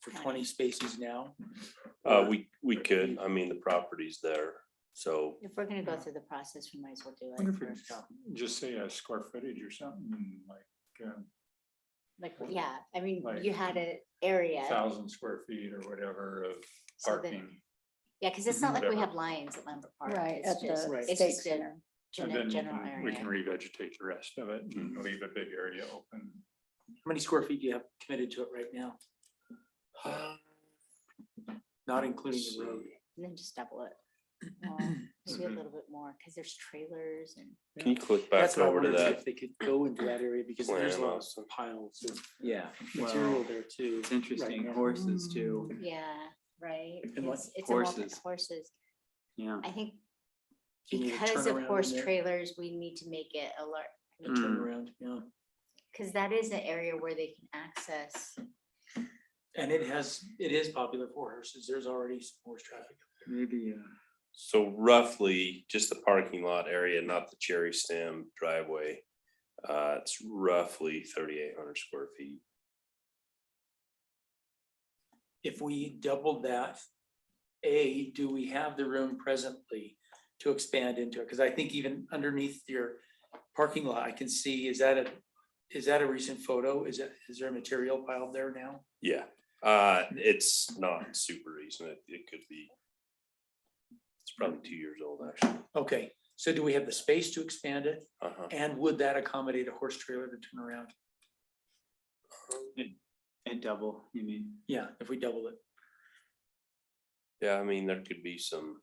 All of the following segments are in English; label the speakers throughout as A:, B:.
A: for twenty spaces now?
B: Uh, we, we could, I mean, the property's there, so
C: If we're gonna go through the process, we might as well do
D: Wonder
C: it
D: if we
C: first.
D: Just say a square footage or something, and like um,
C: Like, yeah, I mean,
D: Like-
C: you had an area,
D: thousand square feet or whatever of
C: So that-
D: parking.
C: yeah, cause it's not like we
D: Whatever.
C: have lions at Lambert Park.
E: Right,
C: It's
E: at
C: just-
E: the
A: Right.
C: It's
E: state
C: just a
E: center.
D: And then
C: gen-
D: we
C: general
D: can, we can
C: area.
D: revegetate the rest of it and leave a big area open.
A: How many square feet do you have committed to it right now?
B: Uh,
A: Not including the road.
C: And then just double it. more, Just do a
D: Mhm.
C: little bit more, cause there's trailers and,
B: can you click
A: That's
B: back
A: what I
B: over to
A: wondered
B: that?
A: if they could go into that area because there's a
B: plan
A: lot of
B: also?
A: piles of
F: Yeah,
A: material there too.
F: it's interesting,
A: now.
F: horses too,
C: yeah, right?
A: And like
C: It's- it's a multi-
F: horses.
C: Horses,
F: yeah.
C: I think
A: Do you need a
C: because of
A: turnaround in
C: horse
A: there?
C: trailers, we need to make it a lar-
A: A
C: I mean,
B: Hmm.
A: Turnaround, yeah.
C: cause that is an area where they can access.
A: And it has, it is popular for horses. There's already some horse traffic.
F: Maybe, uh,
B: So roughly, just the parking lot area, not the cherry stem driveway. Uh, it's roughly thirty-eight hundred square feet.
A: If we doubled that, A, do we have the room presently to expand into it? Because I think even underneath your parking lot, I can see, is that a, is that a recent photo? Is that, is there material piled there now?
B: Yeah, uh, it's not super recent. It, it could be. It's probably two years old, actually.
A: Okay, so do we have the space to expand it?
B: Uh-huh.
A: And would that accommodate a horse trailer to turn around?
F: and double, you mean?
A: Yeah, if we double it.
B: Yeah, I mean, there could be some.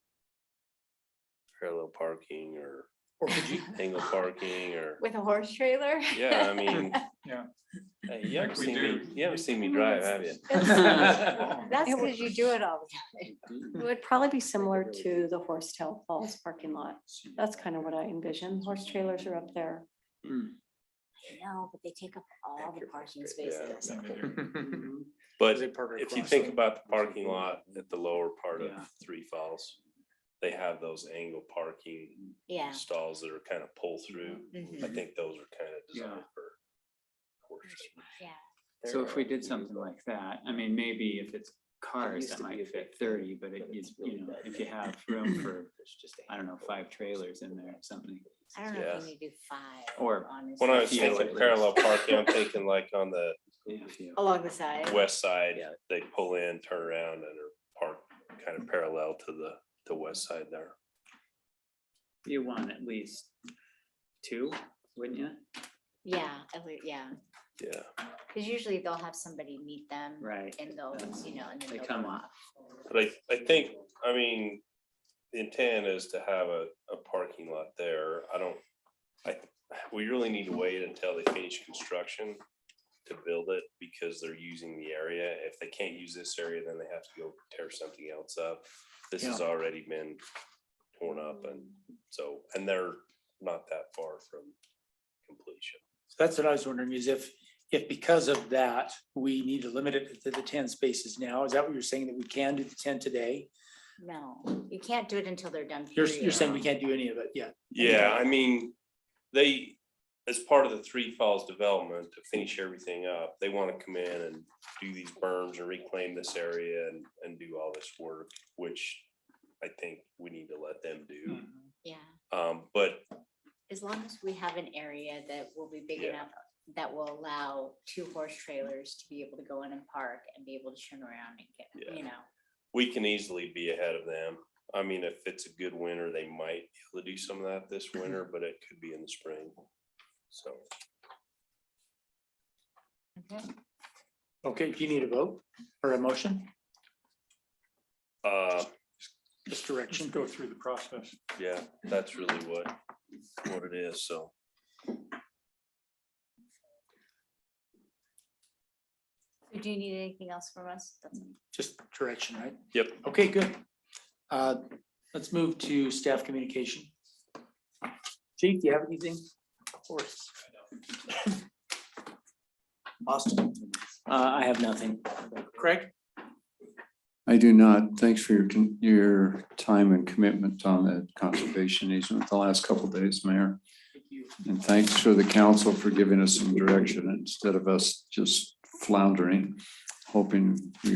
B: Parallel parking or
A: Or could you,
B: angle parking or,
C: With a horse trailer?
B: yeah, I mean.
D: Yeah.
B: Hey, you haven't
D: we
B: seen me,
D: do.
B: you haven't seen me drive, have you?
C: That's because you do it all the time.
E: It would probably be similar to the Horsetail Falls parking lot. That's kind of what I envision. Horse trailers are up there.
C: No, but they take up all the parking
B: yeah.
C: spaces.
B: But
A: They park
B: if you
A: across
B: think
A: them.
B: about the parking lot at the lower part of
F: Yeah.
B: Three Falls. They have those angle parking
C: Yeah.
B: stalls that are kind of pull through. I
C: mhm.
B: think those are kind of
F: Yeah.
B: designed for. horses.
C: Yeah,
F: So if we did something like that, I mean, maybe if it's cars, that might fit thirty, but it is, you know, if you have room for, I don't know, five trailers in there or something.
C: I don't know if
B: Yeah.
C: you need to do five.
F: Or-
B: When I was
C: honestly.
F: Yeah,
B: thinking
F: at least.
B: parallel parking, I'm thinking like on the
F: if you-
C: Along the side.
B: west side,
F: Yeah.
B: they pull in, turn around and are parked kind of parallel to the, the west side there.
F: You want at least two, wouldn't you?
C: Yeah, at lea- yeah,
B: Yeah.
C: because usually they'll have somebody meet them.
F: Right.
C: And they'll,
F: That's-
C: you know, and then
F: they
C: they'll
F: come
C: go
F: up.
C: off.
B: But I, I think, I mean, the intent is to have a, a parking lot there. I don't, I, we really need to wait until they finish construction to build it because they're using the area. If they can't use this area, then they have to go tear something else up. This has already been torn up and so, and they're not that far from completion.
A: So That's what I was wondering is if, if because of that, we need to limit it to the ten spaces now, is that what you're saying that we can do the ten today?
C: No, you can't do it until they're done.
A: You're, you're saying we
C: period.
A: can't do any of it yet?
B: Yeah, I mean, they, as part of the Three Falls development, to finish everything up, they want to come in and do these berms and reclaim this area and, and do all this work, which I think we need to let them do.
F: Mm-hmm.
C: Yeah,
B: Um, but
C: as long as we have an area that will be big
B: Yeah.
C: enough that will allow two horse trailers to be able to go in and park and be able to turn around and
B: Yeah.
C: get, you know.
B: we can easily be ahead of them. I mean, if it's a good winter, they might be able to do some of that this winter, but it could be in the spring. So,
A: Okay, do you need a vote or a motion?
B: uh,
A: Just
D: Just
A: direction.
D: go through the process.
B: yeah, that's really what, what it is, so.
C: Do you need anything else from us? That's all.
A: Just direction, right?
B: Yep.
A: Okay, good. Uh, Let's move to staff communication. Chief, do you have anything? Of course. Austin?
F: Uh, I have nothing.
A: Craig?
G: I do not. Thanks for your, con- your time and commitment on the conservation easement the last couple days, Mayor.
A: Thank you.
G: And thanks for the council for giving us some direction instead of us just floundering, hoping we